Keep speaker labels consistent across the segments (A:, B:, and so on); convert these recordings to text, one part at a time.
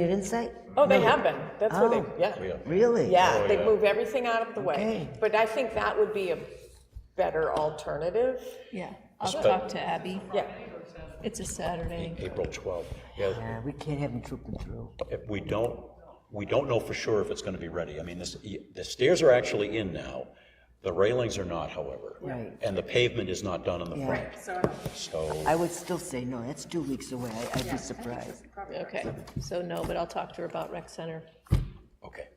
A: You didn't say?
B: Oh, they have been. That's where they,
A: Oh.
B: yeah. Oh,
A: Really?
B: Yeah, they move everything out of the way.
A: Okay.
B: But I think that would be a better alternative.
C: Yeah, I'll talk to Abby.
B: Yeah,
C: It's a Saturday.
D: April 12th. Yeah,
A: Yeah, we can't have them trooping through.
D: if we don't, we don't know for sure if it's going to be ready. I mean, this, the stairs are actually in now. The railings are not, however.
A: Right.
D: And the pavement is not done in the front,
A: Yeah,
D: so
A: I would still say no, that's two weeks away, I- I'd be surprised.
C: Okay, so no, but I'll talk to her about rec center.
D: Okay.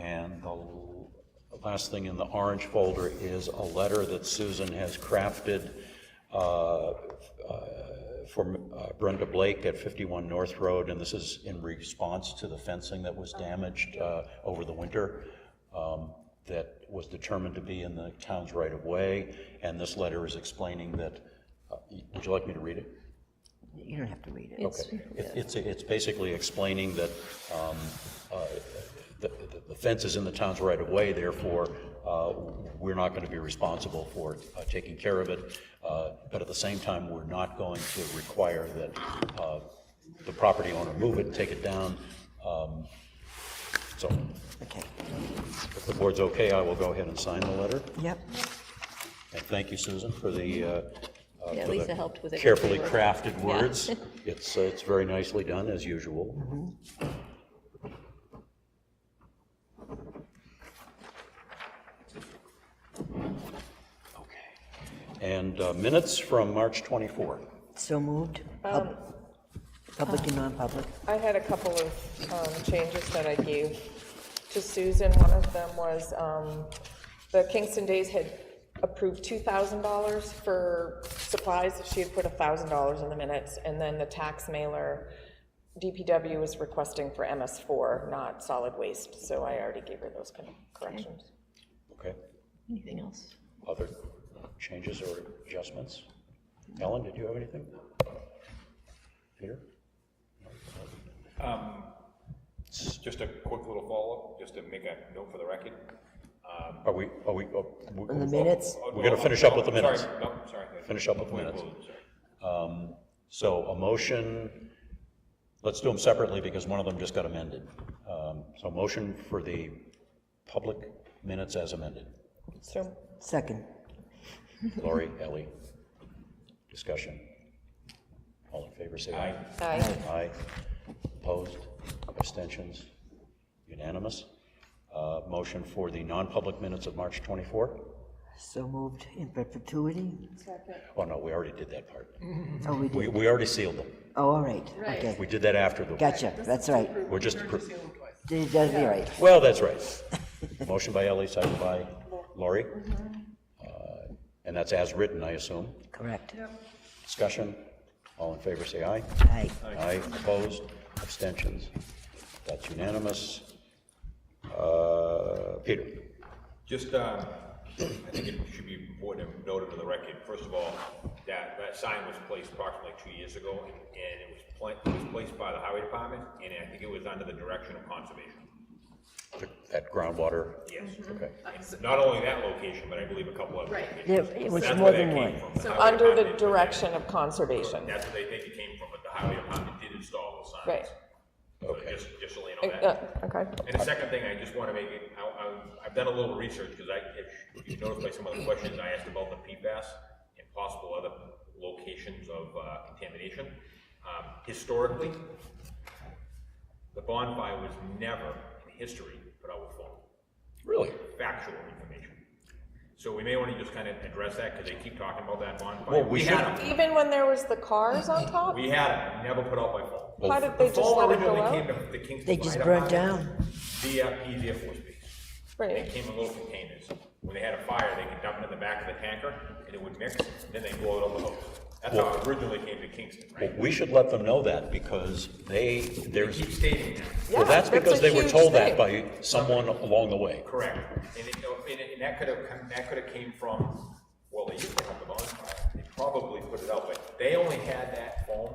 D: And the l- last thing in the orange folder is a letter that Susan has crafted uh, uh, for uh, Brenda Blake at 51 North Road, and this is in response to the fencing that was damaged uh, over the winter um, that was determined to be in the town's right-of-way, and this letter is explaining that, uh, would you like me to read it?
A: You don't have to read it.
C: It's,
D: Okay. It- It's, it's basically explaining that um, uh, the the fence is in the town's right-of-way, therefore, uh, we're not going to be responsible for uh, taking care of it, uh, but at the same time, we're not going to require that uh, the property owner move it, take it down. Um, So
A: Okay,
D: if the board's okay, I will go ahead and sign the letter.
A: yep,
D: And thank you, Susan, for the. uh, uh,
C: Yeah,
D: for the
C: Lisa helped with it.
D: Carefully
C: Yeah.
D: crafted words. It's, uh, it's very nicely done, as usual. Okay. And uh, minutes from March 24.
A: so moved? Pub- Public and non-public?
B: I had a couple of um, changes that I gave to Susan. One of them was um, the Kingston Days had approved $2,000 for supplies. She had put $1,000 in the minutes, and then the tax mailer, DPW was requesting for MS4, not solid waste, so I already gave her those con- corrections.
D: Okay.
C: Anything else?
D: Other changes or adjustments? Ellen, did you have anything? Peter?
E: Just a quick little follow-up, just to make a note for the record.
D: Are we, are we? oh, we-
A: In the minutes?
E: Oh,
D: We're going
E: oh,
D: to finish up
E: oh,
D: with the minutes.
E: Sorry, no, sorry.
D: Finish up with the
E: Wait,
D: minutes.
E: wait, sorry.
D: So a motion, let's do them separately because one of them just got amended. Um, So motion for the public minutes as amended.
B: So
A: Second,
D: Lori, Ellie, discussion. All in favor, say aye.
B: Aye.
D: Aye. Opposed, abstentions, unanimous. Uh, Motion for the non-public minutes of March 24?
A: so moved in perpetuity?
D: Oh, no, we already did that part.
A: Oh, we
D: We
A: did,
D: we already sealed them.
A: oh, all right, okay,
D: We did that after the.
A: gotcha, that's right.
D: We're just.
A: Did- That'd be right,
D: Well, that's right. Motion by Ellie, second by Lori. Uh, And that's as written, I assume.
A: correct.
D: Discussion, all in favor, say aye.
A: Aye.
D: Aye, opposed, abstentions. That's unanimous. Uh, Peter,
E: Just, um, I think it should be important to note into the record, first of all, that, that sign was placed approximately two years ago, and it was pla- it was placed by the highway department, and I think it was under the direction of conservation.
D: that groundwater,
E: Yes.
D: okay.
E: And Not only that location, but I believe a couple other locations.
A: There- it was
E: That's
A: more
E: where that
A: than
E: came
A: one.
E: from, the highway
B: under the
E: department.
B: direction of conservation.
E: That's where they think it came from, but the highway department did install those signs.
B: Right.
E: So just, just so you know that.
B: Uh, Okay.
E: And the second thing, I just want to make it, I, I- I've done a little research, because I, if you noticed by some of the questions I asked about the PFAS and possible other locations of uh, contamination. Um, Historically, the bonfire was never in history put out with foam
D: Really?
E: factual information. So we may want to just kind of address that, because they keep talking about that bonfire.
D: Well, we
E: had
D: should-
E: 'em.
B: Even when there was the cars on top,
E: We had them, never put out by foam.
B: how did they
E: The
B: just
E: fall
B: let it go
E: originally
B: out?
E: came to the Kingston
A: They just
E: Fire
A: burnt
E: Department
A: down.
E: Via Pease Air Force Base. They
B: Right.
E: came in little containers. When they had a fire, they could dump it in the back of the tanker, and it would mix, then they blow it on the hose. That's how it originally came to Kingston,
D: Well,
E: right?
D: we should let them know that because they, there's,
E: Keep stating that,
D: well, that's
B: Yeah, that's
D: because
B: a
D: they were
B: huge
D: told that
B: thing.
D: by someone along the way.
E: correct. And it, and it- and that could have, come- that could have came from, well, they used to have the bonfire, they probably put it out, but they only had that foam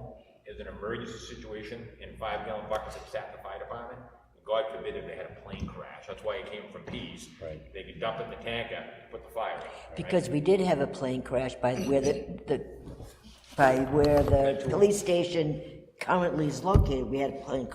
E: as an emergency situation in five gallon buckets that sat in the fire department. God forbid if they had a plane crash, that's why it came from Pease.
D: Right.
E: They could dump it in the tanker, put the fire in. right?
A: Because we did have a plane crash by where the, the, by where the police station currently is located, we had a plan